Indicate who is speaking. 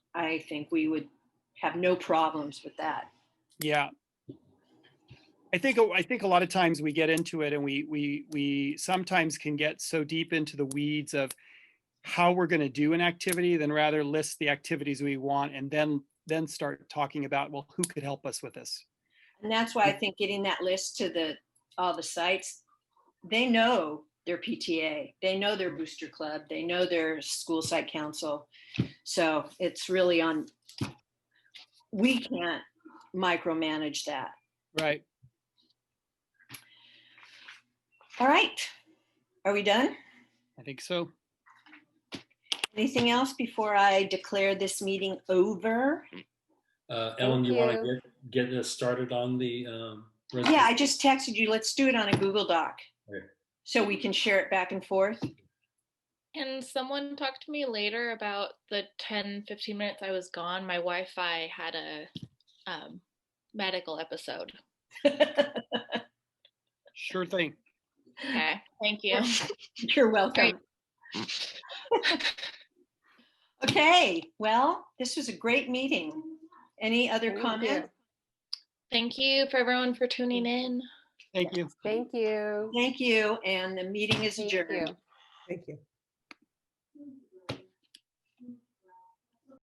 Speaker 1: I think we would have no problems with that.
Speaker 2: Yeah. I think, I think a lot of times we get into it and we, we, we sometimes can get so deep into the weeds of how we're going to do an activity, then rather list the activities we want and then, then start talking about, well, who could help us with this?
Speaker 1: And that's why I think getting that list to the, all the sites, they know their PTA, they know their booster club, they know their school site council. So it's really on, we can't micromanage that.
Speaker 2: Right.
Speaker 1: All right. Are we done?
Speaker 2: I think so.
Speaker 1: Anything else before I declare this meeting over?
Speaker 3: Uh, Ellen, you want
Speaker 4: Thank
Speaker 3: to get, get us started on the, um?
Speaker 1: Yeah, I just texted you. Let's do it on a Google Doc.
Speaker 3: Okay.
Speaker 1: So we can share it back and forth.
Speaker 4: Can someone talk to me later about the 10, 15 minutes I was gone? My Wi Fi had a um, medical episode.
Speaker 2: Sure thing.
Speaker 4: Okay, thank you.
Speaker 1: You're welcome. Okay, well, this was a great meeting. Any other comments?
Speaker 4: thank you for everyone for tuning in.
Speaker 2: Thank you.
Speaker 5: Thank you.
Speaker 1: Thank you, and the meeting is
Speaker 5: Thank
Speaker 1: adjourned.
Speaker 5: you.
Speaker 6: Thank you.